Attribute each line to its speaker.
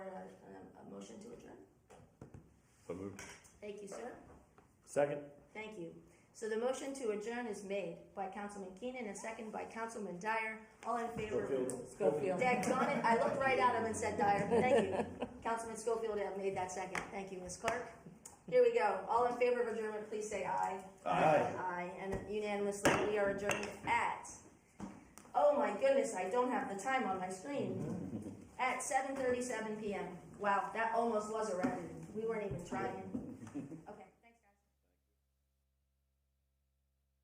Speaker 1: um, motion to adjourn?
Speaker 2: So moved.
Speaker 1: Thank you, sir.
Speaker 2: Second?
Speaker 1: Thank you. So the motion to adjourn is made by Councilman Keenan and second by Councilman Dyer. All in favor?
Speaker 2: Schofield.
Speaker 3: Schofield.
Speaker 1: Daggone it, I looked right at him and said Dyer. Thank you. Councilman Schofield have made that second. Thank you, Ms. Clark. Here we go. All in favor of adjournment, please say aye.
Speaker 2: Aye.
Speaker 1: Aye, and unanimously, we are adjourned at, oh my goodness, I don't have the time on my screen. At seven thirty-seven PM. Wow, that almost was a record. We weren't even trying.